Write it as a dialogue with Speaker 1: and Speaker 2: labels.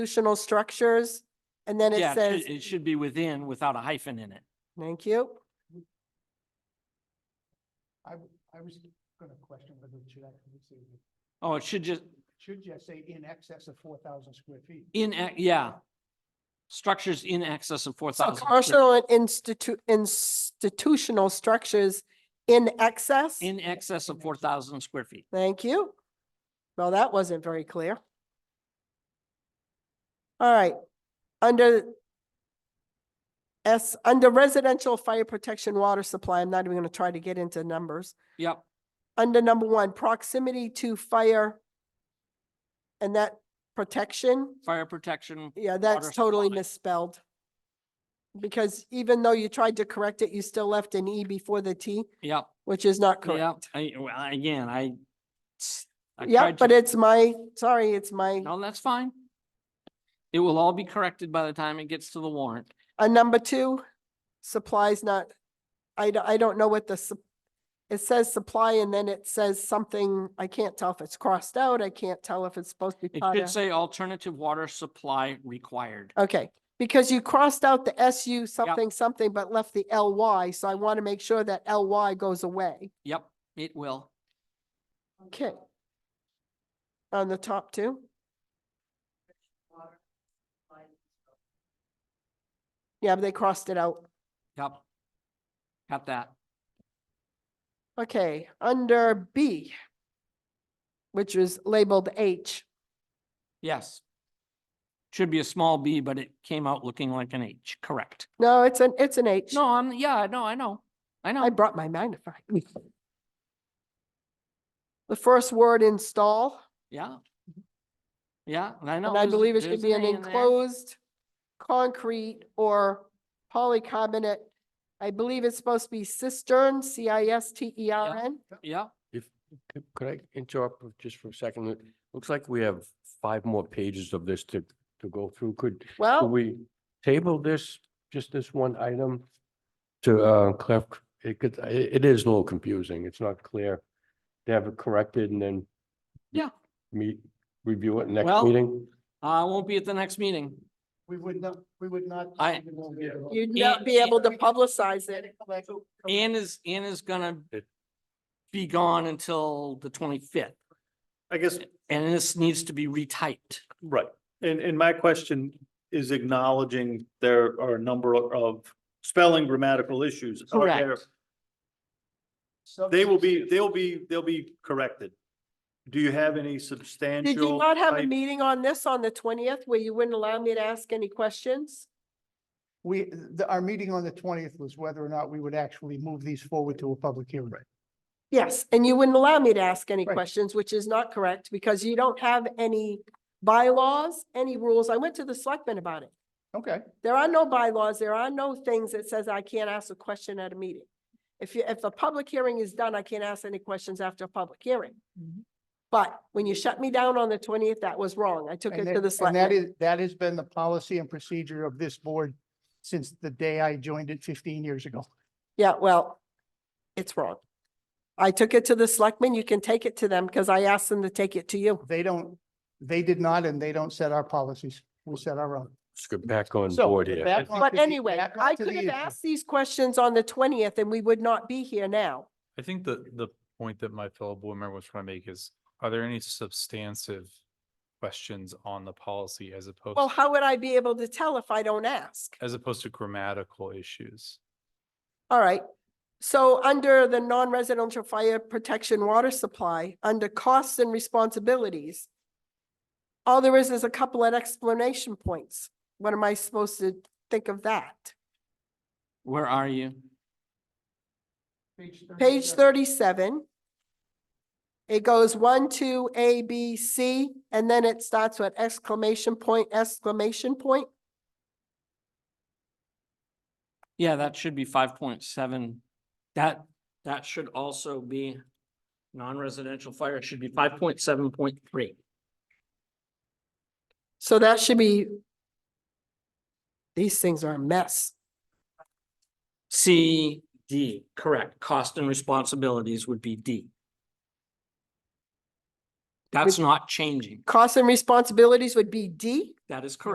Speaker 1: institutional structures. And then
Speaker 2: Yeah,
Speaker 1: it says,
Speaker 2: should- It should be within without a hyphen in it.
Speaker 1: thank you.
Speaker 3: I, w- I was gonna question whether it should actually say,
Speaker 2: Oh, it should just,
Speaker 3: should just say in excess of four thousand square feet.
Speaker 2: in, ac- yeah. Structures in excess of four
Speaker 1: So
Speaker 2: thousand.
Speaker 1: commercial and institu- institutional structures in excess.
Speaker 2: In excess of four thousand square feet.
Speaker 1: Thank you. Well, that wasn't very clear. All right, under S, under residential fire protection water supply, I'm not even going to try to get into numbers.
Speaker 2: Yep,
Speaker 1: Under number one, proximity to fire and that protection,
Speaker 2: fire protection.
Speaker 1: yeah,
Speaker 2: Water
Speaker 1: that's totally
Speaker 2: supply.
Speaker 1: misspelled. Because even though you tried to correct it, you still left an E before the T,
Speaker 2: Yep,
Speaker 1: which is not correct.
Speaker 2: yep. I, well, again, I. I
Speaker 1: Yeah,
Speaker 2: tried
Speaker 1: but
Speaker 2: to-
Speaker 1: it's my, sorry, it's my.
Speaker 2: No, that's fine. It will all be corrected by the time it gets to the warrant.
Speaker 1: Uh, number two, supplies not, I, don't- I don't know what the, sup- it says supply and then it says something, I can't tell if it's crossed out, I can't tell if it's supposed to be.
Speaker 2: It
Speaker 1: part
Speaker 2: should
Speaker 1: of-
Speaker 2: say alternative water supply required.
Speaker 1: Okay, because you crossed out the SU something, something, but left the LY, so I want to make sure that LY goes away.
Speaker 2: Yep, it will.
Speaker 1: Okay. On the top two? Yeah, but they crossed it out.
Speaker 2: Yep. Got that.
Speaker 1: Okay, under B, which is labeled H,
Speaker 2: Yes. Should be a small b, but it came out looking like an H, correct?
Speaker 1: no, it's an, it's an H.
Speaker 2: No, I'm, yeah, no, I know, I
Speaker 1: I
Speaker 2: know.
Speaker 1: brought my magnifying. The first word install,
Speaker 2: Yeah. Yeah, and I know.
Speaker 1: and I
Speaker 2: there's-
Speaker 1: believe it should
Speaker 2: there's
Speaker 1: be an
Speaker 2: A in there.
Speaker 1: enclosed concrete or polycarbonate. I believe it's supposed to be cistern, C I S T E R N.
Speaker 2: Yeah,
Speaker 4: If, could- could I interrupt for- just for a second? It Looks like we have five more pages of this to, to go through. Could, could
Speaker 1: Well,
Speaker 4: we table this, just this one item? To, uh, clarif, it could, i- it is a little confusing. It's not clear. To have it corrected and then.
Speaker 2: Yeah.
Speaker 4: Meet, review it next
Speaker 2: Well-
Speaker 4: meeting?
Speaker 2: I won't be at the next meeting.
Speaker 3: We would not, we would not.
Speaker 2: I-
Speaker 3: we won't be able to-
Speaker 1: you'd not be able to publicize it.
Speaker 2: Ann is, Ann is gonna
Speaker 4: It-
Speaker 2: be gone until the twenty-fifth,
Speaker 5: I guess,
Speaker 2: and this needs to be retyped.
Speaker 5: right, and, and my question is acknowledging there are a number of spelling grammatical issues. out there.
Speaker 2: Correct.
Speaker 5: They will be, they'll be, they'll be corrected. Do you have any substantial?
Speaker 1: Did you not have a
Speaker 5: type-
Speaker 1: meeting on this on the twentieth where you wouldn't allow me to ask any questions?
Speaker 3: We, the, our meeting on the twentieth was whether or not we would actually move these forward to a public hearing.
Speaker 1: Yes, and you wouldn't allow me to ask any
Speaker 3: Right.
Speaker 1: questions, which is not correct because you don't have any bylaws, any rules. I went to the selectmen about it.
Speaker 3: Okay,
Speaker 1: There are no bylaws. There are no things that says I can't ask a question at a meeting. If you, if a public hearing is done, I can't ask any questions after a public hearing.
Speaker 3: Mhm.
Speaker 1: But when you shut me down on the twentieth, that was wrong. I took
Speaker 3: and
Speaker 1: it to the
Speaker 3: that, and that
Speaker 1: selectmen.
Speaker 3: is, that has been the policy and procedure of this board since the day I joined it fifteen years ago.
Speaker 1: Yeah, well, it's wrong. I took it to the selectmen. You can take it to them because I asked them to take it to you.
Speaker 3: They don't, they did not, and they don't set our policies. We set our own.
Speaker 4: Let's get back on
Speaker 3: So,
Speaker 4: board
Speaker 3: with
Speaker 4: here.
Speaker 3: that
Speaker 4: I
Speaker 3: one-
Speaker 1: But
Speaker 3: to the-
Speaker 1: anyway,
Speaker 3: back
Speaker 1: I
Speaker 3: to
Speaker 1: could
Speaker 3: the
Speaker 1: have
Speaker 3: issue.
Speaker 1: asked these questions on the twentieth and we would not be here now.
Speaker 6: I think the, the point that my fellow board member was trying to make is, are there any substantive questions on the policy as opposed,
Speaker 1: Well,
Speaker 6: to-
Speaker 1: how would I be able to tell if I don't ask?
Speaker 6: as opposed to grammatical issues?
Speaker 1: All right. So under the non-residential fire protection water supply, under costs and responsibilities, all there is is a couple of explanation points. What am I supposed to think of that?
Speaker 2: Where are you?
Speaker 1: Page thirty-seven. It goes one, two, A, B, C, and then it starts with exclamation point, exclamation point.
Speaker 2: Yeah, that should be five point seven. That, that should also be non-residential fire. It should be five point seven point three.
Speaker 1: So that should be. These things are a mess.
Speaker 2: C, D, correct. Cost and responsibilities would be D. That's not changing.
Speaker 1: Costs and responsibilities would be D.
Speaker 2: That is correct.